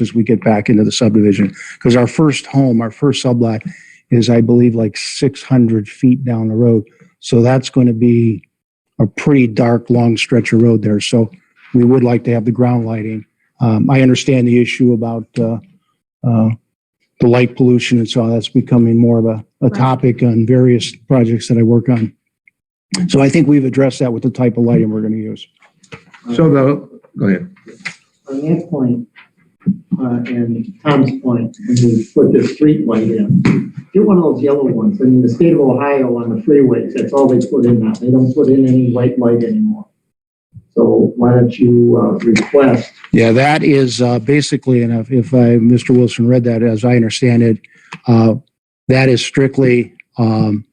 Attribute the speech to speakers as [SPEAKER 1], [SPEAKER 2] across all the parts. [SPEAKER 1] as we get back into the subdivision. Because our first home, our first sublot is, I believe, like 600 feet down the road. So that's going to be a pretty dark, long stretch of road there. So we would like to have the ground lighting. Um, I understand the issue about, uh, uh, the light pollution and so on. That's becoming more of a, a topic on various projects that I work on. So I think we've addressed that with the type of lighting we're going to use.
[SPEAKER 2] So the, go ahead.
[SPEAKER 3] Um, On that point, uh, and Tom's point, when we put the street light in, get one of those yellow ones. I mean, the state of Ohio on the freeways, that's all they put in now. They don't put in any white light anymore. So why don't you, uh, request,
[SPEAKER 1] Yeah, that is uh, basically, and if- if I, Mr. Wilson read that, as I understand it, uh, that is strictly um,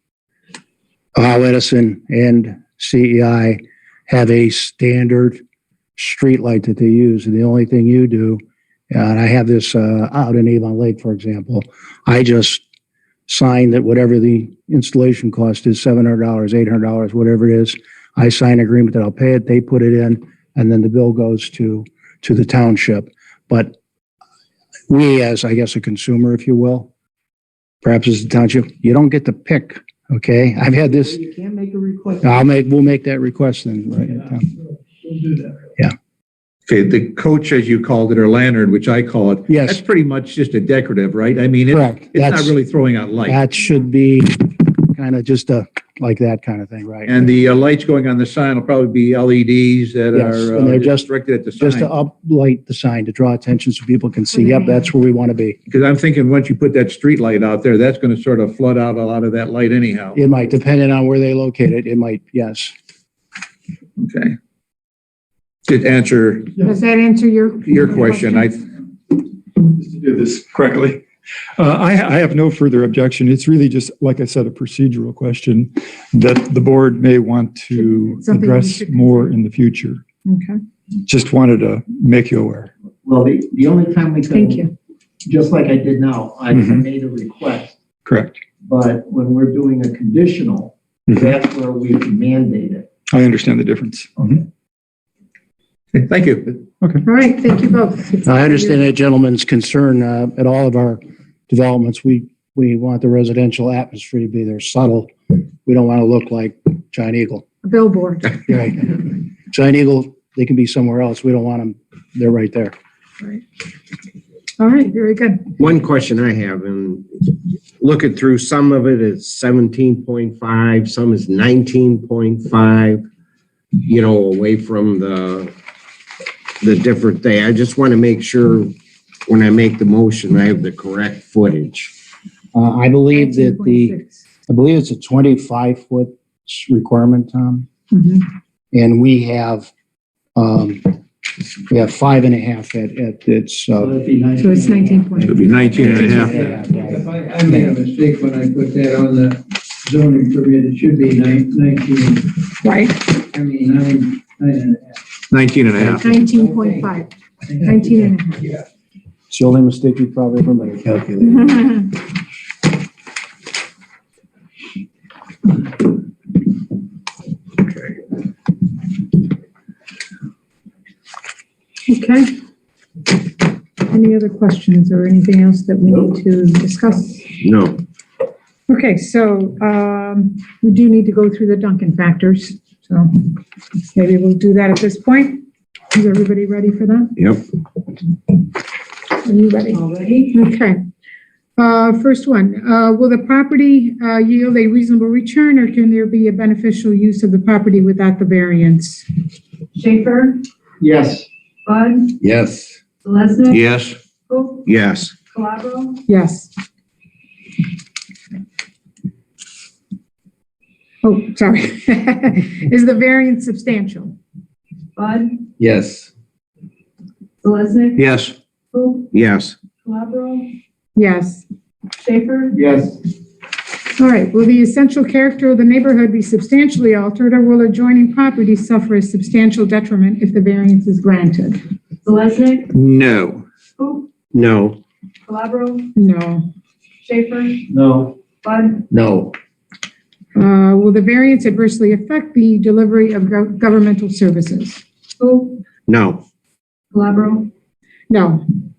[SPEAKER 1] Ohio Edison and E CEI have a standard streetlight that they use, and the only thing you do, uh, and I have this uh, out in Avon Lake, for example, I just sign that whatever the installation cost is, $700, $800, whatever it is, I sign an agreement that I'll pay it, they put it in, and then the bill goes to to the township. But we, as I guess a consumer, if you will, perhaps as the township, you don't get to pick, okay? I've had this,
[SPEAKER 3] you can't make a request.
[SPEAKER 1] I'll make, we'll make that request then, right?
[SPEAKER 3] We'll do that.
[SPEAKER 2] Okay, the coach, as you called it, or lantern, which I call it, that's
[SPEAKER 1] Yes,
[SPEAKER 2] pretty much just a decorative, right? I mean, it-
[SPEAKER 1] correct.
[SPEAKER 2] it's not
[SPEAKER 1] That's,
[SPEAKER 2] really throwing out light.
[SPEAKER 1] that should be kind of just a, like that kind of thing, right?
[SPEAKER 2] And the uh, lights going on the sign will probably be LEDs that
[SPEAKER 1] Yes,
[SPEAKER 2] are
[SPEAKER 1] and they're
[SPEAKER 2] uh,
[SPEAKER 1] just-
[SPEAKER 2] directed at the
[SPEAKER 1] Just to
[SPEAKER 2] sign.
[SPEAKER 1] uplight the sign, to draw attention so people can see, yep, that's where we want to be.
[SPEAKER 2] Because I'm thinking, once you put that street light out there, that's going to sort of flood out a lot of that light anyhow.
[SPEAKER 1] It might, depending on where they locate it, it might, yes.
[SPEAKER 2] Okay. To answer
[SPEAKER 4] Does that answer your?
[SPEAKER 2] your question, I,
[SPEAKER 5] to do this correctly. Uh, I, I have no further objection. It's really just, like I said, a procedural question that the board may want to
[SPEAKER 4] Something we
[SPEAKER 5] address
[SPEAKER 4] should
[SPEAKER 5] more in the future.
[SPEAKER 4] Okay,
[SPEAKER 5] Just wanted to make you aware.
[SPEAKER 3] Well, the, the only time we can.
[SPEAKER 4] thank you.
[SPEAKER 3] Just like I did now, I I
[SPEAKER 2] Mm-hmm.
[SPEAKER 5] Mhm.
[SPEAKER 3] made a request,
[SPEAKER 5] Correct.
[SPEAKER 3] but when we're doing a conditional,
[SPEAKER 2] Mm-hmm.
[SPEAKER 5] Mhm.
[SPEAKER 3] that's where we can mandate it.
[SPEAKER 5] I understand the difference.
[SPEAKER 2] thank you.
[SPEAKER 4] All right, thank you both.
[SPEAKER 1] I understand that gentleman's concern uh, at all of our developments. We, we want the residential atmosphere to be there subtle. We don't want to look like Giant Eagle.
[SPEAKER 4] A Billboard.
[SPEAKER 1] Right. Giant Eagle, they can be somewhere else. We don't want them, they're right there.
[SPEAKER 4] All right, very good.
[SPEAKER 6] One question I have, and looking through, some of it is seventeen point five, some is nineteen point five, you know, away from the, the different day. I just want to make sure when I make the motion, I have the correct footage.
[SPEAKER 1] Uh, I believe that the,
[SPEAKER 4] 19.6.
[SPEAKER 1] I believe it's a 25 foot requirement, Tom.
[SPEAKER 4] Mhm.
[SPEAKER 1] And we have, um, we have five and a half at, at, it's,
[SPEAKER 3] So
[SPEAKER 1] uh,
[SPEAKER 3] it'd be nice.
[SPEAKER 4] So it's nineteen point.
[SPEAKER 2] It'll be 19 and a half.
[SPEAKER 1] yeah,
[SPEAKER 7] If I, I made a mistake when I put that on the zoning permit, it should be nine- nineteen,
[SPEAKER 4] Right,
[SPEAKER 7] I mean, nine, nine and a half.
[SPEAKER 2] 19 and a half.
[SPEAKER 4] nineteen point five, nineteen and a half.
[SPEAKER 7] Yeah.
[SPEAKER 1] it's the only mistake you probably ever made. Calculator.
[SPEAKER 4] Okay. Any other questions or anything else that we need to discuss?
[SPEAKER 6] No,
[SPEAKER 4] Okay, so um, we do need to go through the Duncan factors, so maybe we'll do that at this point. Is everybody ready for that?
[SPEAKER 6] yep.
[SPEAKER 4] Are you ready?
[SPEAKER 3] Already?
[SPEAKER 4] Okay. Uh, First one, uh, will the property uh, yield a reasonable return, or can there be a beneficial use of the property without the variance?
[SPEAKER 8] Schaefer,
[SPEAKER 3] Yes.
[SPEAKER 8] Bud,
[SPEAKER 6] Yes.
[SPEAKER 8] Lesnick,
[SPEAKER 2] Yes,
[SPEAKER 8] Cook,
[SPEAKER 6] Yes.
[SPEAKER 8] Calabro,
[SPEAKER 4] Yes. Oh, sorry. Is the variance substantial?
[SPEAKER 8] Bud,
[SPEAKER 6] Yes.
[SPEAKER 8] Lesnick,
[SPEAKER 2] yes.
[SPEAKER 8] Cook,
[SPEAKER 6] Yes.
[SPEAKER 8] Calabro,
[SPEAKER 4] Yes.
[SPEAKER 8] Schaefer,
[SPEAKER 3] Yes.
[SPEAKER 4] All right, will the essential character of the neighborhood be substantially altered, or will adjoining properties suffer a substantial detriment if the variance is granted?
[SPEAKER 8] Lesnick,
[SPEAKER 2] No.
[SPEAKER 8] Cook,
[SPEAKER 6] No.
[SPEAKER 8] Calabro,
[SPEAKER 4] No.
[SPEAKER 8] Schaefer,
[SPEAKER 3] No.
[SPEAKER 8] Bud,
[SPEAKER 6] No.
[SPEAKER 4] Uh, Will the variance adversely affect the delivery of gov- governmental services?
[SPEAKER 8] Cook,
[SPEAKER 6] No.
[SPEAKER 8] Calabro,
[SPEAKER 4] No.